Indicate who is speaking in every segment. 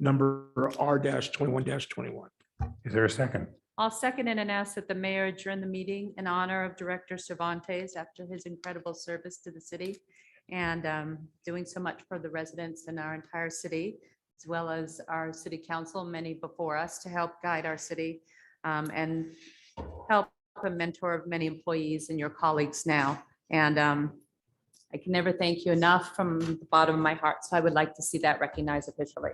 Speaker 1: number R twenty-one twenty-one.
Speaker 2: Is there a second?
Speaker 3: I'll second it and ask that the mayor adjourn the meeting in honor of Director Cervantes after his incredible service to the city and um, doing so much for the residents in our entire city, as well as our city council, many before us, to help guide our city um, and help a mentor of many employees and your colleagues now. And um, I can never thank you enough from the bottom of my heart, so I would like to see that recognized officially.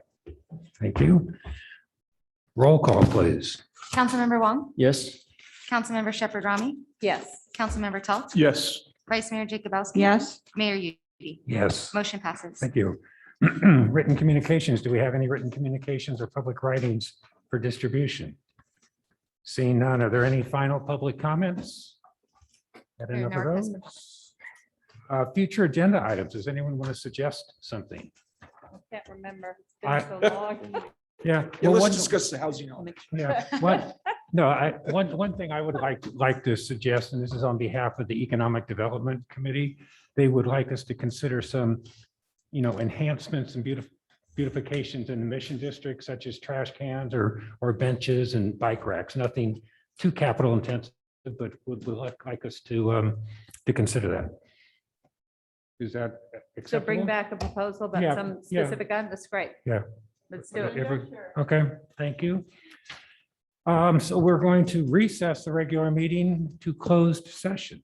Speaker 2: Thank you. Roll call, please.
Speaker 4: Councilmember Wong,
Speaker 5: Yes.
Speaker 4: Councilmember Shepherd Rami,
Speaker 3: Yes.
Speaker 4: Councilmember Talt,
Speaker 1: Yes,
Speaker 4: Vice Mayor Jacobowski.
Speaker 6: Yes,
Speaker 4: Mayor Udi.
Speaker 2: Yes,
Speaker 4: Motion passes.
Speaker 2: thank you. Written communications. Do we have any written communications or public writings for distribution? Seeing none, are there any final public comments? Had
Speaker 4: There are
Speaker 2: enough
Speaker 4: no
Speaker 2: of
Speaker 4: requests for-
Speaker 2: those? Uh, Future agenda items. Does anyone want to suggest something?
Speaker 3: Can't remember.
Speaker 2: I- Yeah.
Speaker 1: yeah,
Speaker 2: well,
Speaker 1: let's
Speaker 2: one-
Speaker 1: discuss the housing element.
Speaker 2: Yeah, one, no, I, one, one thing I would like, like to suggest, and this is on behalf of the Economic Development Committee, they would like us to consider some, you know, enhancements and beautif- beautifications in the Mission District such as trash cans or, or benches and bike racks, nothing too capital intensive, but would, would like- like us to, um, to consider that. Is that
Speaker 3: So
Speaker 2: acceptable?
Speaker 3: bring back a proposal
Speaker 2: Yeah,
Speaker 3: about some
Speaker 2: yeah.
Speaker 3: specific item, that's great.
Speaker 2: Yeah.
Speaker 3: Let's do it.
Speaker 2: Every- Okay, thank you. Um, so we're going to recess the regular meeting to closed session.